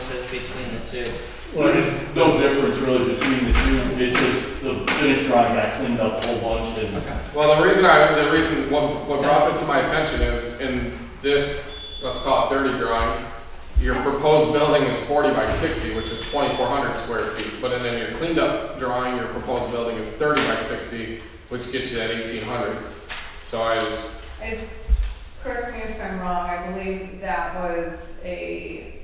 between the two. There's no difference really between the two, it's just the finish drawing got cleaned up a whole bunch and Well, the reason I, the reason, what, what brought this to my attention is in this, let's call it dirty drawing, your proposed building is forty by sixty, which is twenty-four hundred square feet, but then in your cleaned up drawing, your proposed building is thirty by sixty, which gets you at eighteen hundred. So I just, If, correct me if I'm wrong, I believe that was a,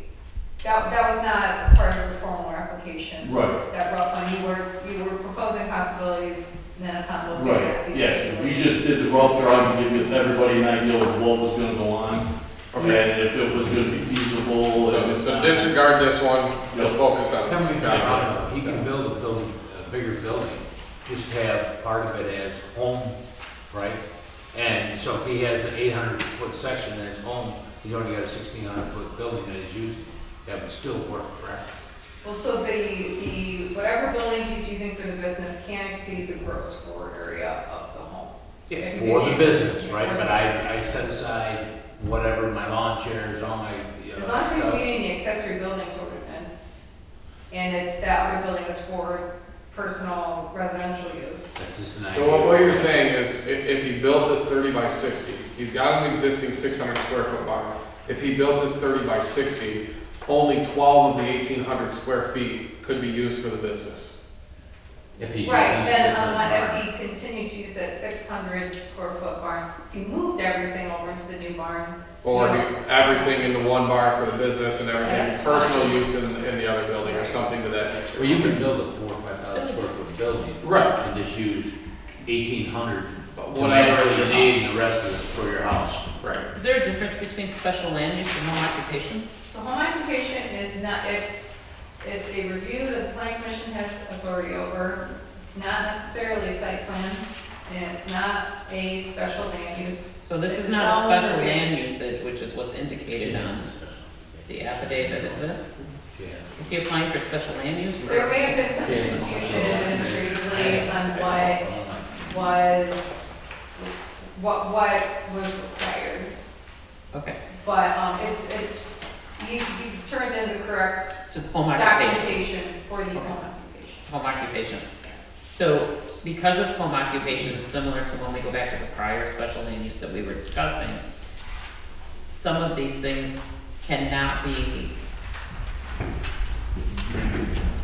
that, that was not part of the formal application. Right, That Ralph, when you were, you were proposing possibilities, and then a combo of that. right, yeah, we just did the rough drawing to give everybody an idea of what was gonna go on, okay, and if it was gonna be feasible. so, and- so disregard this one, we'll focus on Coming this. down, I don't know, he can build a building, a bigger building, just have part of it as home, right? And so if he has an eight hundred foot section as home, he's already got a sixteen hundred foot building that he's using, that would still work, correct? Well, so the, the, whatever building he's using for the business can't exceed the gross floor area of the home. Yeah. For the business, right, but I, I set aside whatever, my lawn chairs, all my, you know, As long as he's stuff. meeting the accessory buildings ordinance, and it's that other building is for personal residential use. That's just an So what, what idea. you're saying is, i- if he built this thirty by sixty, he's got an existing six hundred square foot barn. If he built this thirty by sixty, only twelve of the eighteen hundred square feet could be used for the business. If he's using Right, it then as a unless if barn. he continued to use that six hundred square foot barn, if he moved everything over into the new barn, Or do everything into one barn for the business and everything, Yes. personal use in, in the other building or something to that nature. Well, you can build a four, or five thousand square foot building. Right. And just use eighteen hundred to Whatever measure your the needs and the rest of it for your house. Right. Is there a difference between special land use and home occupation? so home occupation is not, it's, it's a review that the planning commission has authority over. It's not necessarily a site plan, and it's not a special land use. So this is It's not a all under special the- land usage, which is what's indicated on the affidavit, is it? Yeah. Is he applying for special land use? There may have been some confusion administratively on what Oh, was, what, what was required. Okay, But, um, it's, it's, you, you turned in the correct to home occupation. documentation for the home occupation. It's home occupation. So because it's home occupation, similar to when we go back to the prior special land use that we were discussing, some of these things cannot be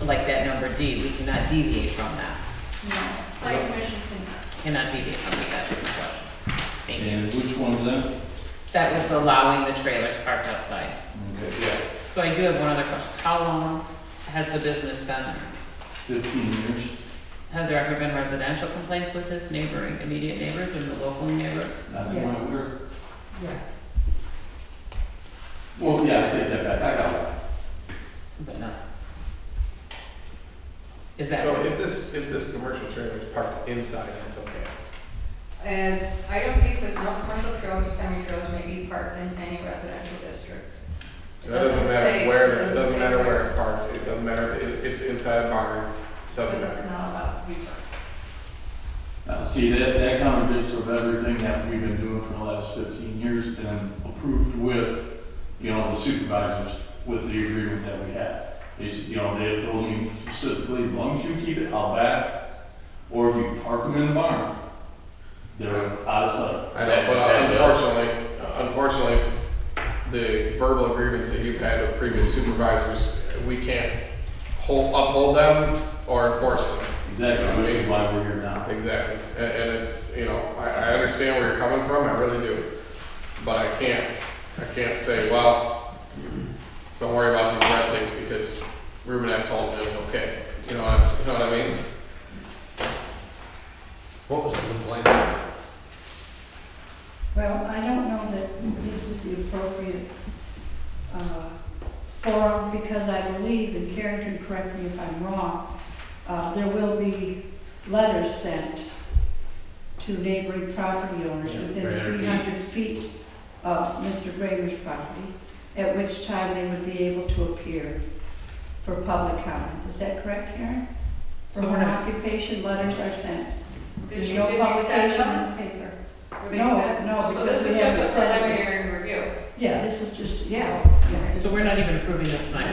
like that number D, we cannot deviate from that, No, planning commission cannot. cannot deviate from that, that's the question. Thank you. And which one's that? That was the allowing the trailers parked outside. Okay, Yeah. So I do have one other question. How long has the business been? fifteen years. Have there ever been residential complaints with his neighboring, immediate neighbors or the local neighbors? That's one Yes. we're. Yes. Well, yeah, I take that back, I got one. But no. Is that, So if this, if this commercial trailer is parked inside, that's okay. And item D says no commercial trails or semi-trails may be parked in any residential district. So It doesn't say- matter where, it doesn't doesn't say matter where it's parked, it doesn't matter if it- it's inside a barn, doesn't Because matter. It's not allowed to be parked. Uh, see, that, that contradicts of everything that we've been doing for the last fifteen years and approved with, you know, the supervisors with the agreement that we had. Is, you know, they have told me specifically, as long as you keep it out back, or if you park them in the barn, they're out of sight. I know, Is that- but is that- unfortunately, unfortunately, the verbal agreements that you've had with previous supervisors, we can't hold, uphold them or enforce them. Exactly, which is why we're here now. Exactly. And, and it's, you know, I, I understand where you're coming from, I really do. But I can't, I can't say, well, don't worry about these red things because Ruben had told me it was okay. You know, it's, you know what I mean? What was the complaint? Well, I don't know that this is the appropriate uh, forum, because I believe, and Karen can correct me if I'm wrong, uh, there will be letters sent to neighboring property owners Yeah, within 300 feet. 300 feet of Mr. Bramer's property, at which time they would be able to appear for public comment. Is that correct, Karen? For home occupation, letters are sent. Did There's you, no did you send publication them? in the paper. Were they No, sent? no, Oh, So this because is just we a haven't sent them. preliminary review? Yeah, this is just, yeah. yeah, this so is- we're not even approving this tonight?